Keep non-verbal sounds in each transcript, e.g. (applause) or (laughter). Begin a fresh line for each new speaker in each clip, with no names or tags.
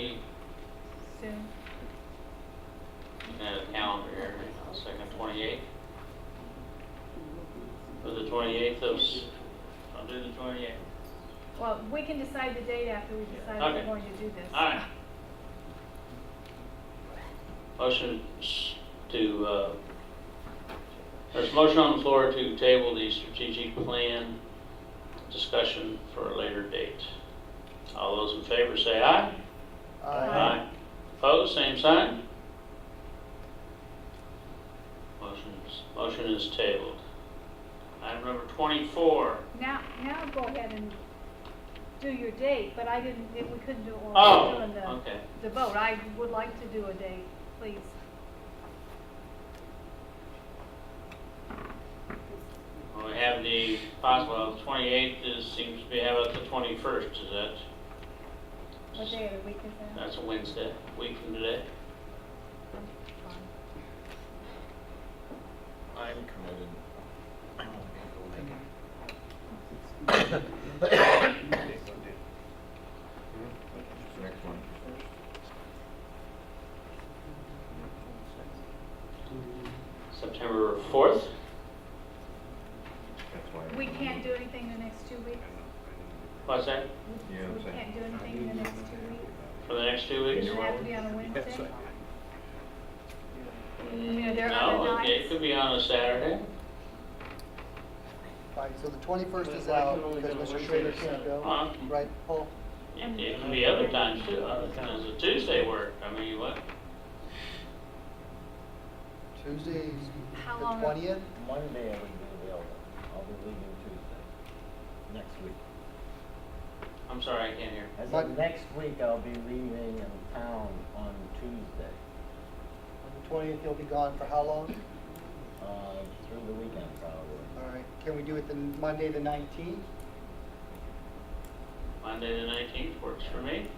uh, Yes, I'll do the twenty-eighth.
Well, we can decide the date after we decide if
Okay.
we're going to do this.
All right. Motion s- to, uh, there's a motion on the floor to table the strategic plan discussion for a later date. All those in favor say aye.
Aye.
Opposed, same sign. Motion's, motion is tabled. Item number 24.
Now, now go ahead and do your date, but I didn't, we couldn't do it while we were
Oh,
doing the,
okay.
the vote. I would like to do a date, please.
Well, We have the possible, well, the 28th is, seems to be, how about the 21st, is that,
What day of the week is that?
that's a Wednesday, week from today?
Fine.
I'm committed. I won't be able to make it. Next one.
September 4th?
That's why.
We can't do anything the next two weeks?
What's that,
We-
Yeah, I'm
We
saying.
can't do anything in the next two weeks?
for the next two weeks?
Does it have to be on a Wednesday? You know, there are
No,
other
it- it
nights.
could be on a Saturday.
Right, so the 21st is
But I can
out
only
because
go Uh,
Mr.
Wednesday
Schrader
or
can't
Saturday.
go,
Huh?
right, Paul?
It it can be other times too, other times, a Tuesday work, I mean, what,
Tuesday's the
How long?
20th?
Monday I would be available. I'll be leaving Tuesday, next week.
I'm sorry, I can't hear.
As
But-
of next week, I'll be leaving in town on Tuesday,
On the 20th, you'll be gone for how long?
uh, through the weekend probably.
All right, can we do it the Monday, the 19th?
Monday the 19th works for me.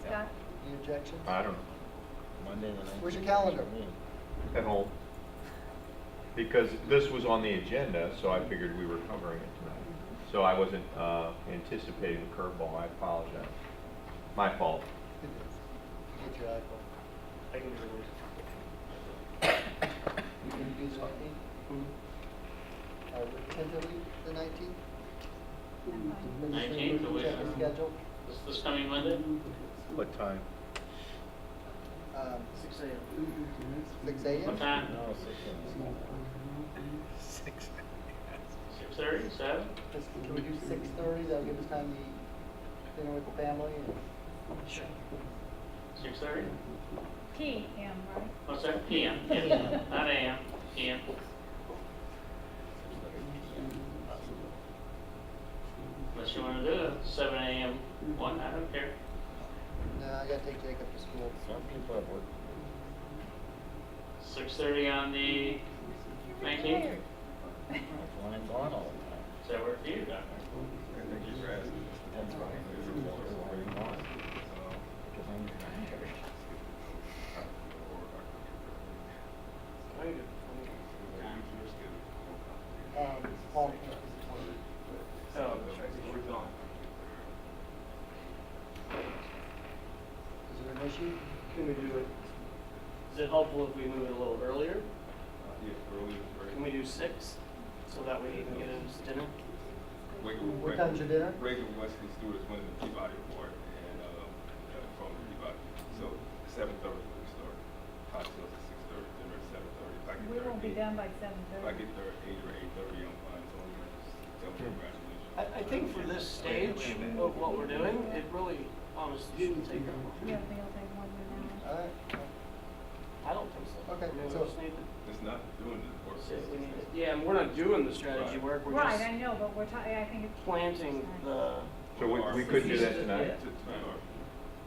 Scott?
Any objections?
I don't know,
Monday the nineteenth.
Where's your calendar?
at home. Because this was on the agenda, so I figured we were covering it tonight. So I wasn't uh, anticipating the curveball, I apologize. My fault.
Get your iPhone. You can do the 19th?
Hmm.
Or tentatively the 19th?
I'm
Then just
19th, the
check
week-
the Schedule,
This, this coming Monday?
What time?
um,
Six AM.
6 a.m.?
What time?
No, six in
Six.
6:30, 7?
Just, can we do 6:30, that'll give us time to eat dinner with the family and
6:30?
fine. PM, right?
What's that? PM, (laughs) yes, not AM, PM. Unless you wanna do it, seven AM, one, I don't care.
No, I gotta take Jacob to school.
Some people have work.
Six thirty on the, is Nineteenth?
Tired.
That's when I'm gone all the time.
that work for you, Doctor?
That's why I'm very gone. Because I'm tired.
Um, Paul, can you please tell me? is there an issue?
Can we do it, is it helpful if we move it a little earlier? Can we do six, so that way he can get his dinner?
What time's your dinner?
Reagan Wesley Stewart is winning the Peabody Award and, uh, uh, from Peabody. So seven thirty we start, cocktails at six thirty, dinner at seven thirty. If I get
We
there
won't be
at eight-
done by seven
If I
thirty.
get there at eight or eight thirty, I'm fine, so I'm gonna just tell them
Hmm.
congratulations.
I, I think for this stage of what we're doing, it really honestly shouldn't take that
You
long.
don't think it'll take more than an hour?
All right,
I don't think so.
Okay,
I mean, we
so-
just need to
It's not doing the work.
see if we need it. Yeah, and we're not doing the strategy work, we're
Right, I
just
know, but we're talking, I think it's.
planting the,
So we, we could do that tonight?
To, to start.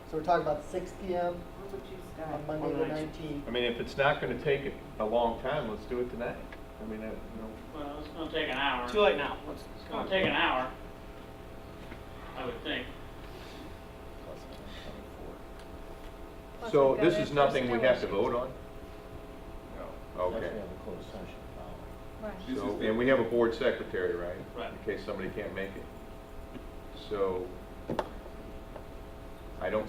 so we're talking about six PM on Monday the
On the 19th.
nineteenth.
I mean, if it's not gonna take a long time, let's do it tonight. I mean, I, you know,
Well, it's gonna take an hour.
too late now, let's,
It's gonna take an hour, I would think.
Plus I'm
Plus
so
we've got
this
that
is nothing we
personnel
have to
issue.
vote on?
No.
on 24. Unless we
Okay.
have a closed session following.
Right.
This is
So,
the-
and we have a board secretary, right?
Right.
In case somebody can't make it. So, I don't